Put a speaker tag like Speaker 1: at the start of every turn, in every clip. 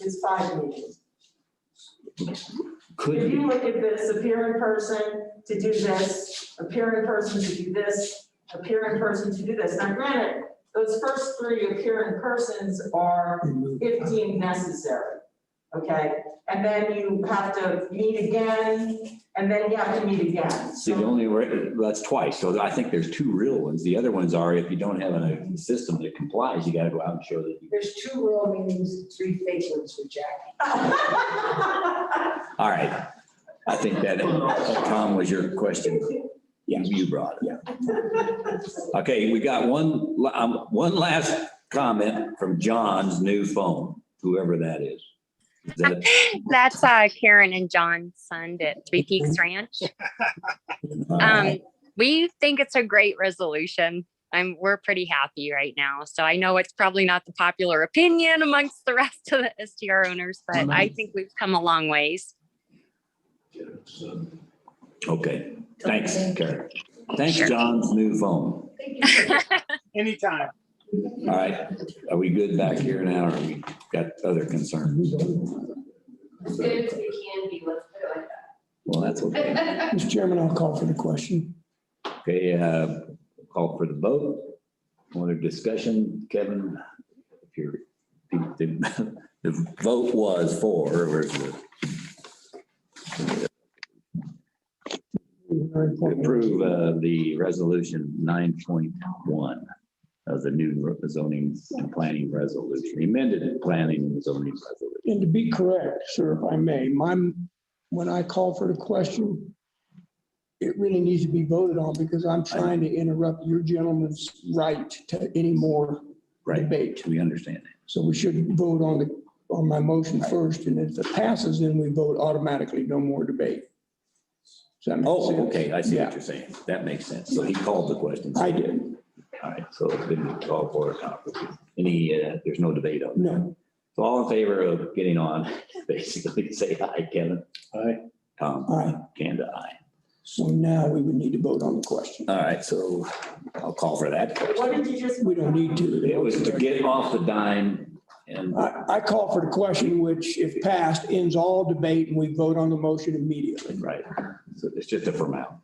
Speaker 1: is five meetings. If
Speaker 2: Could be,
Speaker 1: you look at this, appear in person to do this, appear in person to do this, appear in person to do this. Now granted, those first three appear in persons are fifteen necessary, okay? And then you have to meet again, and then you have to meet again.
Speaker 2: see, the
Speaker 1: So
Speaker 2: only, re- that's twice, so I think there's two real ones. The other ones are if you don't have a system that complies, you gotta go out and show that. you-
Speaker 3: There's two rural meetings, three fake ones for Jackie.
Speaker 2: All right, I think that, that, Tom, was your question. You brought it. Okay, we got one, la- um, one last comment from John's new phone, whoever that is. Is that-
Speaker 4: That's uh, Karen and John Sund at Three Peaks Ranch. Um, we think it's a great resolution. I'm, we're pretty happy right now. So I know it's probably not the popular opinion amongst the rest of the STR owners, but I think we've come a long ways.
Speaker 2: Okay, thanks, Karen. Thanks,
Speaker 4: Sure.
Speaker 2: John's new phone.
Speaker 5: Anytime.
Speaker 2: All right, are we good back here now, or we got other concerns?
Speaker 6: As good as we can be, let's put it like
Speaker 2: Well, that's okay.
Speaker 6: that.
Speaker 7: Mr. Chairman, I'll call for the question.
Speaker 2: Okay, uh, call for the vote. Other discussion, Kevin? If you're, the, the vote was for, where's the approve uh, the resolution nine point one of the new zoning and planning resolution, amended planning and zoning resolution.
Speaker 7: And to be correct, sir, if I may, my, when I call for the question, it really needs to be voted on because I'm trying to interrupt your gentleman's right to any more
Speaker 2: Right,
Speaker 7: debate.
Speaker 2: we understand that.
Speaker 7: So we should vote on the, on my motion first, and if it passes, then we vote automatically, no more debate. Does that make sense?
Speaker 2: Oh, okay, I see what
Speaker 7: Yeah.
Speaker 2: you're saying. That makes sense. So he called the question.
Speaker 7: I did,
Speaker 2: All right, so it's been called for a conference. Any, uh, there's no debate on that.
Speaker 7: no,
Speaker 2: So all in favor of getting on, basically say aye, Kevin. Aye. Tom,
Speaker 7: all right,
Speaker 2: Kanda, aye.
Speaker 7: so now we would need to vote on the question.
Speaker 2: All right, so I'll call for that.
Speaker 1: What did you just?
Speaker 7: We don't need to.
Speaker 2: It was to get off the dime and
Speaker 7: I, I call for the question, which if passed, ends all debate and we vote on the motion immediately.
Speaker 2: Right, so it's just a formal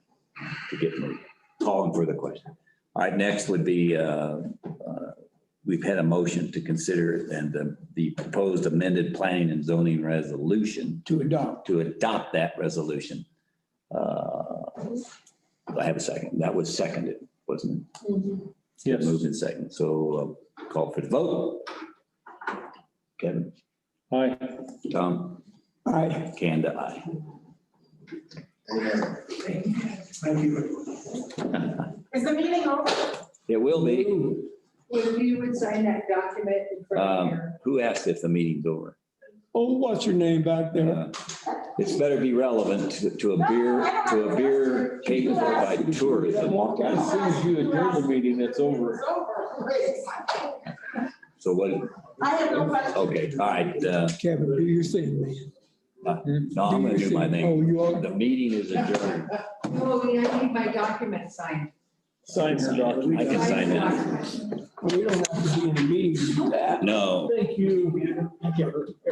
Speaker 2: to get me calling for the question. All right, next would be, uh, uh, we've had a motion to consider and the- the proposed amended planning and zoning resolution
Speaker 7: To adopt.
Speaker 2: to adopt that resolution. Uh, do I have a second. That was seconded, wasn't it? Mm-hmm. Yes. Moved in second. So uh, call for the vote. Kevin? Aye. Tom?
Speaker 7: I,
Speaker 2: Kanda, aye.
Speaker 1: Is the meeting over?
Speaker 2: It will be.
Speaker 3: If you would sign that document in front of
Speaker 2: Um,
Speaker 3: her.
Speaker 2: Who asked if the meeting's over?
Speaker 7: oh, what's your name back there?
Speaker 2: Uh, It's better be relevant to- to a beer, to a beer capable by tourism.
Speaker 7: Walk
Speaker 8: As
Speaker 7: out.
Speaker 8: soon as you adjourn the meeting, it's over.
Speaker 1: It's over. Wait.
Speaker 2: So what,
Speaker 1: I have no question.
Speaker 2: okay, all right, uh,
Speaker 7: Kevin, do your thing, man.
Speaker 2: no, I'm gonna do my thing.
Speaker 7: Oh, you are,
Speaker 2: The meeting is adjourned.
Speaker 3: No, I need my document signed.
Speaker 8: Sign her document.
Speaker 2: I can sign that.
Speaker 7: we don't have to be in a meeting to do that.
Speaker 2: No.
Speaker 7: Thank you. I can't-